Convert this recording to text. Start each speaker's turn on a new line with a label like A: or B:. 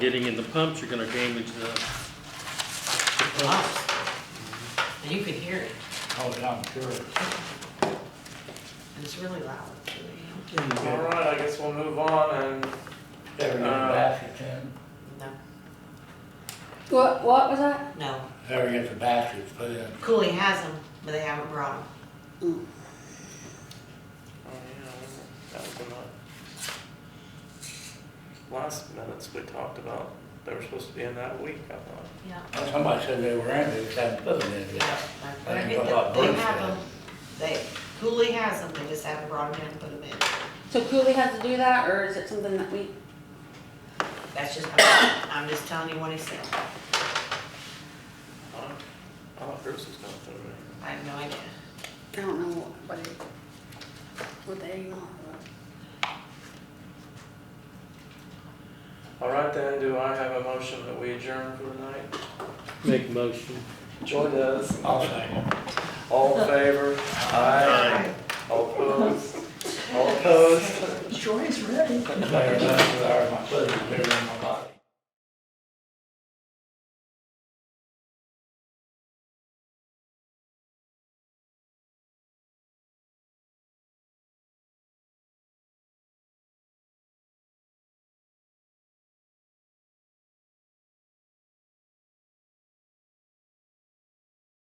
A: getting in the pumps, you're gonna damage the, the pump.
B: And you could hear it,
C: Oh, yeah, I'm sure.
B: and it's really loud.
D: All right, I guess we'll move on and oh,
C: They're in
D: Uh,
C: Baskerton,
B: No,
E: What, what was that?
B: no,
C: they're in the baskets put in.
B: Cooley has them, but they haven't brought them.
D: Oh, yeah, that was in the last minutes we talked about. They were supposed to be in that week, I thought.
B: Yeah.
C: Somebody said they were in, they just haven't put them in yet. I think
B: They
C: I bought Bruce
B: have
C: then.
B: them, they, Cooley has them, they just haven't brought them in and put them in.
E: So Cooley has to do that, or is it something that we,
B: That's just, I'm just telling you what he said,
D: Huh? I thought Bruce was going through it.
B: I have no idea.
E: I don't know what it, what they want.
D: All right then, do I have a motion that we adjourn for the night?
A: make a motion.
D: Joy does.
C: I'll say.
D: All in favor? Aye. All opposed? All opposed?
C: They're in, they're in my, they're in my body.